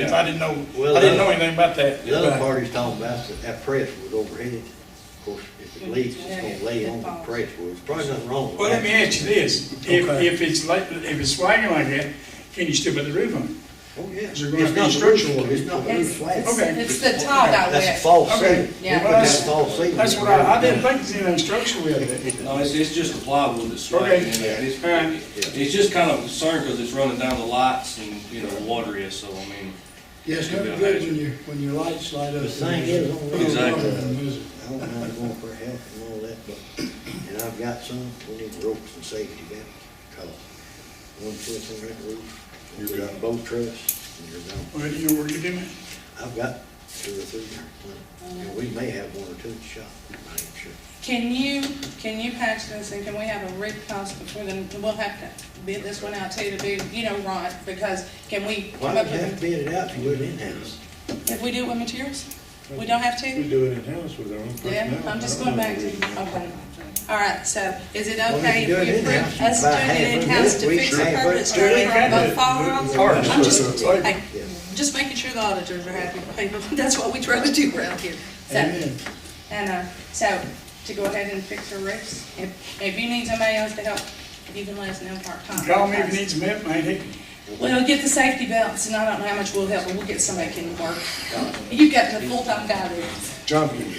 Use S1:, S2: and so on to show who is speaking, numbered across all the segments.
S1: 'Cause I didn't know,
S2: Well,
S1: I didn't know
S2: uh,
S1: anything about that.
S2: The other
S3: Right.
S2: part he's talking about is that that press was overhead. Of course, if it leaks, it's gonna lay on the press well, There's probably nothing wrong with that.
S1: Well, let me ask you this, if,
S3: Okay.
S1: if it's like, if it's flagging like that, can you still put the roof on it?
S2: Oh, yeah.
S1: Is there gonna
S2: It's
S1: be
S2: not
S1: structural?
S2: It's not roof
S4: It's,
S2: flat.
S1: Okay.
S4: it's the tile that
S2: That's a
S4: wet.
S2: false
S1: Okay.
S2: ceiling.
S4: Yeah.
S2: But That's a false ceiling.
S1: That's what I, I didn't think there's anything structural with it.
S5: No, it's, it's just the plywood that's swaying in there, and it's,
S1: Okay.
S5: it's just kind of a concern, because it's running down the lights and, you know, water is, so, I mean,
S3: Yeah, it's never good when your, when your lights light up.
S2: The thing is, I don't know.
S5: Exactly.
S2: I don't know how it's going for help and all that, but, and I've got some, we need ropes and safety belts, cause one foot on that roof. You got. Both truss, and you're gone.
S1: Well, you know where you're doing it?
S2: I've got two or three there, plenty. and we may have one or two in the shop, I ain't sure.
S4: Can you, can you patch this and can we have a rig cost before then, we'll have to bid this one out to you to bid, you know, Ron, because can we
S2: Why
S4: come
S2: would
S4: up
S2: you have to
S4: with,
S2: bid it out to do it in-house?
S4: if we do it with materials? We don't have
S6: We
S4: to?
S6: do it in-house with our own
S4: Yeah,
S6: personnel.
S4: I'm just going back to, okay. All right, so is it
S2: Well,
S4: okay
S2: if you do
S4: if we
S2: it in-house,
S4: approve us
S2: you buy
S4: doing it
S2: half
S4: in-house
S2: of
S4: to
S2: it,
S4: fix
S2: we
S4: the
S2: can have it.
S4: permits starting from both
S2: Or-
S4: firearms? I'm just, I,
S2: Yeah.
S4: just making sure the auditors are happy, that's what we try to do around here. So-
S3: Amen.
S4: And, uh, so, to go ahead and fix your roofs, if, if you need somebody else to help, you can let us know part-time.
S1: Call me if you need some help, man, hey,
S4: Well, get the safety belts, and I don't know how much we'll help, but we'll get somebody can work. You've got the full-time guy there.
S6: Jumping.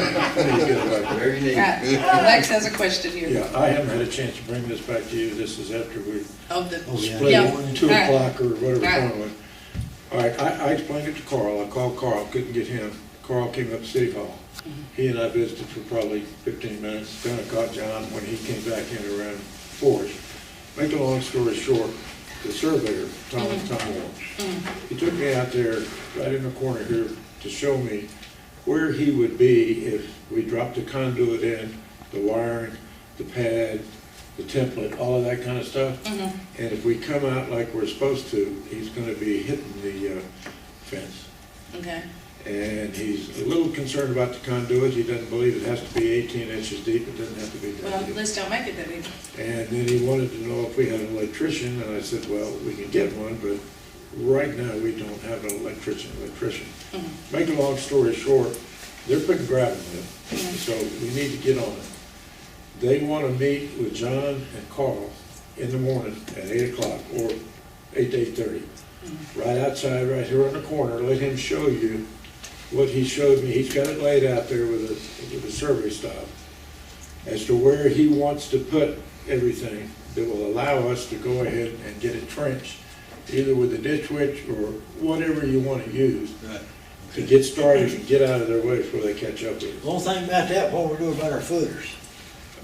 S2: Very neat.
S4: Right, Lex has a question here.
S6: Yeah, I haven't had a chance to bring this back to you. This is after we
S4: Of the,
S2: yeah.
S6: split
S4: Yeah.
S6: it, Oh, two
S4: Right.
S6: o'clock or whatever
S4: Right.
S6: time it was. All right, I, I explained it to Carl. I called Carl, couldn't get him. Carl came up to City Hall.
S4: Mm-hmm.
S6: He and I visited for probably fifteen minutes. Then I caught John when he came back in around four-ish. Make a long story short, the surveyor, Tom,
S4: Mm-hmm.
S6: Tom Moore, he took me out there, right in the corner here, to show me where he would be if we dropped the conduit in, the wiring, the pad, the template, all of that kind of stuff. And if we come out like we're supposed to, he's gonna be hitting the uh, fence.
S4: okay,
S6: And he's a little concerned about the conduit, he doesn't believe it has to be eighteen inches deep, it doesn't have to be
S4: well,
S6: that deep.
S4: let's don't make it that big.
S6: And then he wanted to know if we had an electrician, and I said, well, we can get one, but right now, we don't have an electrician, electrician. Make a long story short, they're putting gravel in, so we need to get on it. They want to meet with John and Carl in the morning at eight o'clock, or eight to eight-thirty, right outside, right here on the corner, let him show you what he showed me, he's got it laid out there with a, with a survey style, as to where he wants to put everything that will allow us to go ahead and get it trenched, either with a ditch witch or whatever you want to use, to get started and get out of their way before they catch up with us.
S2: One thing about that, what we're doing about our footers,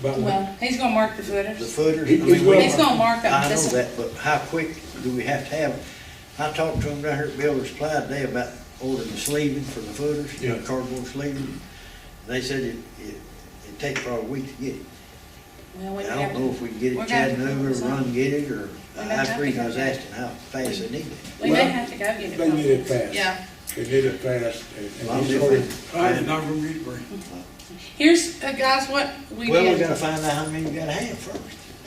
S6: About when-
S4: Well, he's gonna mark the
S2: the
S4: footers.
S2: footers. I
S6: He's
S2: mean, we-
S6: gonna-
S4: He's gonna mark
S2: I
S4: them,
S2: know
S4: this,
S2: that, but how quick do we have to have? it? I talked to him down here at Builder's Supply today about ordering the sleeving for the footers, you know,
S6: Yeah.
S2: cardboard sleeving. They said it, it, it takes probably a week to get it.
S4: well, we
S2: I
S4: have
S2: don't know if
S4: to,
S2: we can get it
S4: We're
S2: in
S4: gonna have to
S2: Chattanooga,
S4: figure
S2: run
S4: something.
S2: get it, or,
S4: We're gonna
S2: that's
S4: have
S2: the
S4: to
S2: reason I was
S4: figure it out.
S2: asking how fast they need it.
S4: we may
S6: Well,
S4: have to go get it.
S6: They need it fast.
S4: Yeah.
S6: They need it fast, and-
S2: Well,
S6: and he's
S2: if
S6: already,
S2: we-
S1: I did not go read it,
S4: Here's, uh, guys, what we
S2: Well, we
S4: did.
S2: gotta find out how many we gotta have first.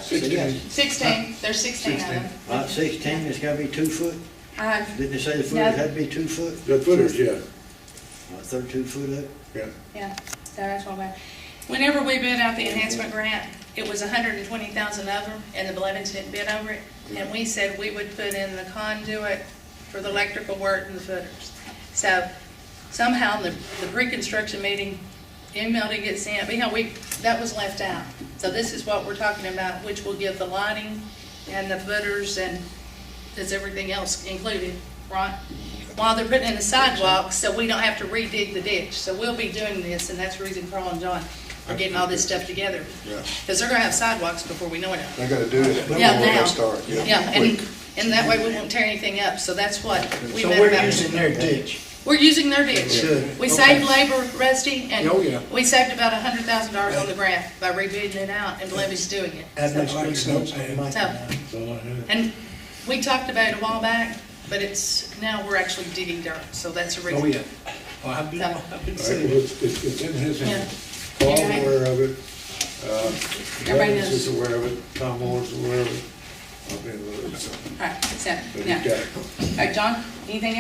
S6: Sixteen.
S4: Sixteen, there's sixteen of them.
S2: About sixteen, it's gotta be two foot,
S4: Uh,
S2: didn't they say the
S4: No.
S2: footers had to be two foot,
S6: the footers, yeah,
S2: or thirty-two foot up?
S6: yeah.
S4: Yeah, so that's why bad. Whenever we bid out the enhancement grant, it was hundred and twenty thousand of them, and the Blevins didn't bid over it. And we said we would put in the conduit for the electrical work and the footers. So somehow the, the pre-construction meeting, email to get sent, but yeah, we, that was left out. So this is what we're talking about, which will give the lighting and the footers and is everything else included, right? While they're putting in the sidewalks, so we don't have to redig the ditch. So we'll be doing this, and that's the reason Carl and John are getting all this stuff together.
S7: Yeah.
S4: Because they're gonna have sidewalks before we know it.
S7: They gotta do it.
S4: Yeah,
S7: before they
S4: now.
S7: Start, yeah.
S4: Yeah, and, and that way we won't tear anything up, so that's what we
S3: So
S4: meant
S3: we're
S4: about-
S3: using their ditch.
S4: We're using their ditch.
S3: Good.
S4: We
S3: Okay.
S4: saved labor, Rusty,
S3: Oh, yeah.
S4: and we saved about a hundred thousand dollars on the grant by rebidding it out, and Levy's doing it.
S3: That
S4: So-
S3: makes me so
S4: So,
S3: mad.
S6: That's all I have.
S4: and we talked about it a while back, but it's, now we're actually digging dirt, so that's a reason.
S3: Well, I've been, I've been
S6: All right,
S3: saying.
S6: well, It's, it's it's in his hand.
S4: Yeah.
S6: Paul's
S4: You're right.
S6: aware of it. uh,
S4: Everybody
S6: Evans is
S4: knows.
S6: aware of it. Tom Moore's aware of I'll be in the loop, so.
S4: All right, so,
S6: But
S4: now,
S6: he's got it.
S4: all right, John, anything else?